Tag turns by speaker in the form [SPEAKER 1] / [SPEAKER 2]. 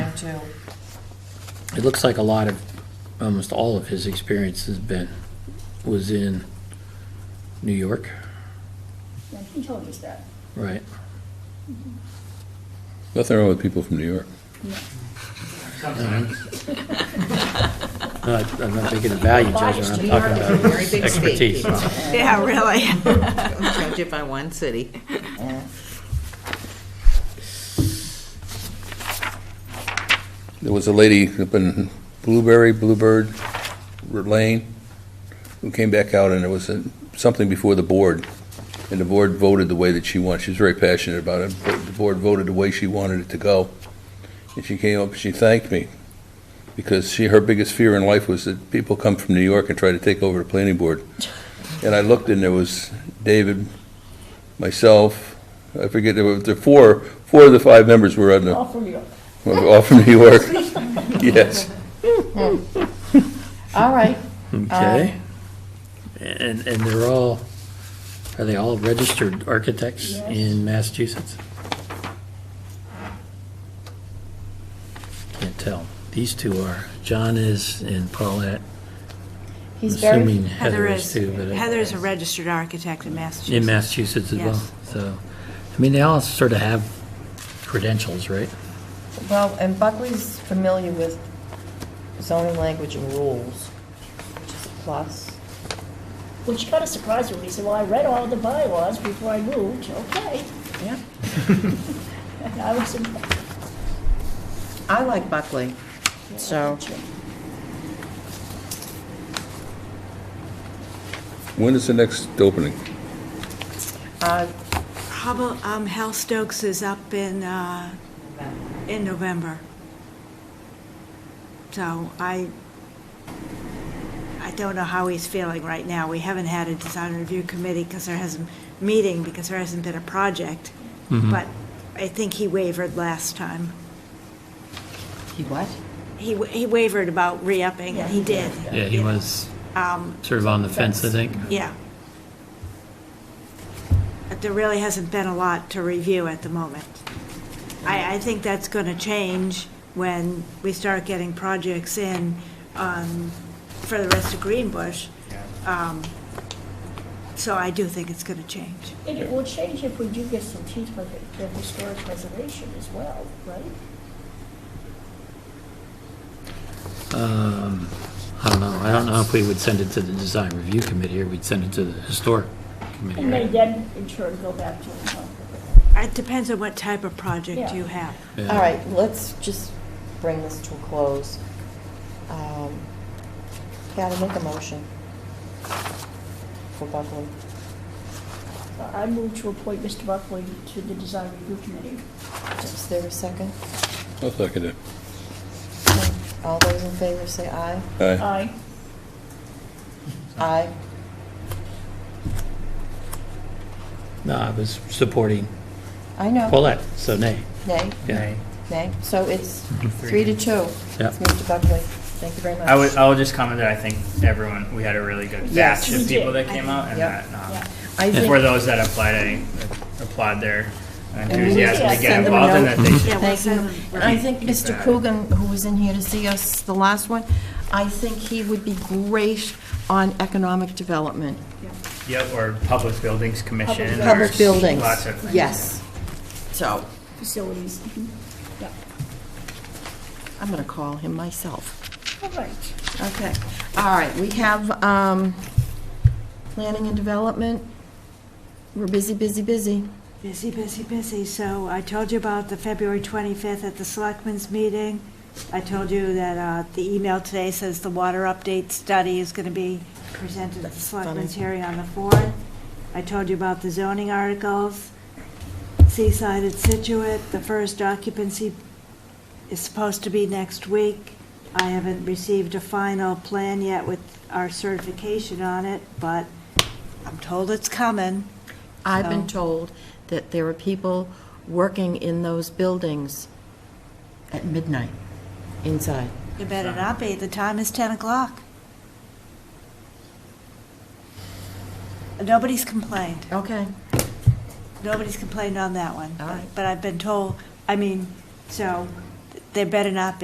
[SPEAKER 1] too.
[SPEAKER 2] It looks like a lot of, almost all of his experience has been, was in New York,
[SPEAKER 3] Yeah, he told us that.
[SPEAKER 2] right?
[SPEAKER 4] Nothing wrong with people from New York.
[SPEAKER 2] No, I- I'm not making a value judgment, I'm talking
[SPEAKER 1] New York
[SPEAKER 2] about
[SPEAKER 1] is a very
[SPEAKER 2] his
[SPEAKER 1] big Um,
[SPEAKER 2] expertise.
[SPEAKER 5] Yeah, really.
[SPEAKER 1] Don't judge it by one city.
[SPEAKER 4] There was a lady up in Blueberry, Bluebird Lane, who came back out, and there was a- something before the board, and the board voted the way that she wanted. She was very passionate about it, but the board voted the way she wanted it to go. And she came up, and she thanked me, because she, her biggest fear in life was that people come from New York and try to take over the planning board. And I looked, and there was David, myself, I forget, there were, there were four, four of the five members were on the,
[SPEAKER 3] All from York.
[SPEAKER 4] were all from New York. Yes.
[SPEAKER 1] All right,
[SPEAKER 2] Okay? And, and they're all, are they all registered architects in Massachusetts? Can't tell. These two are. John is and Paulette.
[SPEAKER 1] he's
[SPEAKER 2] I'm
[SPEAKER 1] very,
[SPEAKER 2] assuming Heather is too, but. I-
[SPEAKER 5] Heather is a registered architect in Massachusetts.
[SPEAKER 2] In Massachusetts as well,
[SPEAKER 5] Yes.
[SPEAKER 2] so, I mean, they all sort of have credentials, right?
[SPEAKER 1] well, and Buckley's familiar with zoning language and rules, which is a plus.
[SPEAKER 3] Which kind of surprised me when he said, well, I read all the bylaws before I moved. Okay.
[SPEAKER 1] Yeah.
[SPEAKER 3] And I was impressed.
[SPEAKER 1] I like Buckley, so.
[SPEAKER 4] When is the next opening?
[SPEAKER 1] uh,
[SPEAKER 5] Probably, um, Hal Stokes is up in, uh, in November. So I, I don't know how he's feeling right now. We haven't had a design review committee because there hasn't, meeting because there hasn't been a project. But I think he wavered last time.
[SPEAKER 6] He what?
[SPEAKER 5] He, wa- he wavered about re-upping, and he did.
[SPEAKER 2] Yeah, he was
[SPEAKER 5] Um,
[SPEAKER 2] sort of on the fence, I think.
[SPEAKER 5] Yeah. But there really hasn't been a lot to review at the moment. I, I think that's going to change when we start getting projects in um, for the rest of Greenbush. Um, So I do think it's going to change.
[SPEAKER 3] And it will change if we do get some teeth with it, the historic preservation as well, right?
[SPEAKER 2] Um, I don't know, I don't know if we would send it to the design review committee, or we'd send it to the historic committee,
[SPEAKER 3] And they
[SPEAKER 2] right?
[SPEAKER 3] then in turn go back to the town.
[SPEAKER 5] It depends on what type of project
[SPEAKER 3] Yeah.
[SPEAKER 5] you have.
[SPEAKER 2] Yeah.
[SPEAKER 1] All right, let's just bring this to a close. Um, Gotta make a motion for Buckley.
[SPEAKER 3] Uh, I moved to appoint Mr. Buckley to the design review committee.
[SPEAKER 1] Is there a second?
[SPEAKER 4] I'll second it.
[SPEAKER 1] All those in favor say aye.
[SPEAKER 4] Aye.
[SPEAKER 3] Aye.
[SPEAKER 1] Aye.
[SPEAKER 2] No, I was supporting
[SPEAKER 1] I know.
[SPEAKER 2] Paulette, so nay.
[SPEAKER 1] Nay,
[SPEAKER 2] Yeah.
[SPEAKER 1] nay. So it's three to two.
[SPEAKER 2] Yeah.
[SPEAKER 1] It's Mr. Buckley. Thank you very much.
[SPEAKER 7] I would, I would just comment that I think everyone, we had a really good
[SPEAKER 3] Yes,
[SPEAKER 7] batch
[SPEAKER 3] we
[SPEAKER 7] of people
[SPEAKER 3] did.
[SPEAKER 7] that came out, and
[SPEAKER 1] Yep.
[SPEAKER 7] that,
[SPEAKER 1] I
[SPEAKER 7] um, for
[SPEAKER 1] think,
[SPEAKER 7] those that applied, I applaud their
[SPEAKER 1] we
[SPEAKER 7] enthusiasm
[SPEAKER 3] need
[SPEAKER 7] to
[SPEAKER 3] to
[SPEAKER 7] get
[SPEAKER 1] send them a
[SPEAKER 7] involved, and that they should
[SPEAKER 5] Yeah, we'll
[SPEAKER 1] thank you.
[SPEAKER 5] send them-
[SPEAKER 1] And I think
[SPEAKER 7] keep
[SPEAKER 1] Mr.
[SPEAKER 7] that.
[SPEAKER 1] Coogan, who was in here to see us, the last one, I think he would be great on economic development.
[SPEAKER 7] Yep, or Public Buildings Commission. or
[SPEAKER 1] Public buildings.
[SPEAKER 7] Lots of things.
[SPEAKER 1] Yes. So
[SPEAKER 3] Facilities. mhm. Yeah.
[SPEAKER 1] I'm going to call him myself.
[SPEAKER 3] All right.
[SPEAKER 1] Okay. All right, we have um, planning and development. We're busy, busy, busy.
[SPEAKER 5] Busy, busy, busy. So I told you about the February 25th at the Selectmen's meeting. I told you that uh, the email today says the water update study is going to be presented at the Selectmen's hearing on the 4th. I told you about the zoning articles, Seaside at Situate, the first occupancy is supposed to be next week. I haven't received a final plan yet with our certification on it, but I'm told it's coming.
[SPEAKER 1] I've been
[SPEAKER 5] Oh.
[SPEAKER 1] told that there are people working in those buildings at midnight inside.
[SPEAKER 5] You better not be. The time is 10 o'clock. Nobody's complained.
[SPEAKER 1] Okay.
[SPEAKER 5] Nobody's complained on that one.
[SPEAKER 1] All right.
[SPEAKER 5] But I've been told, I mean, so there better not be.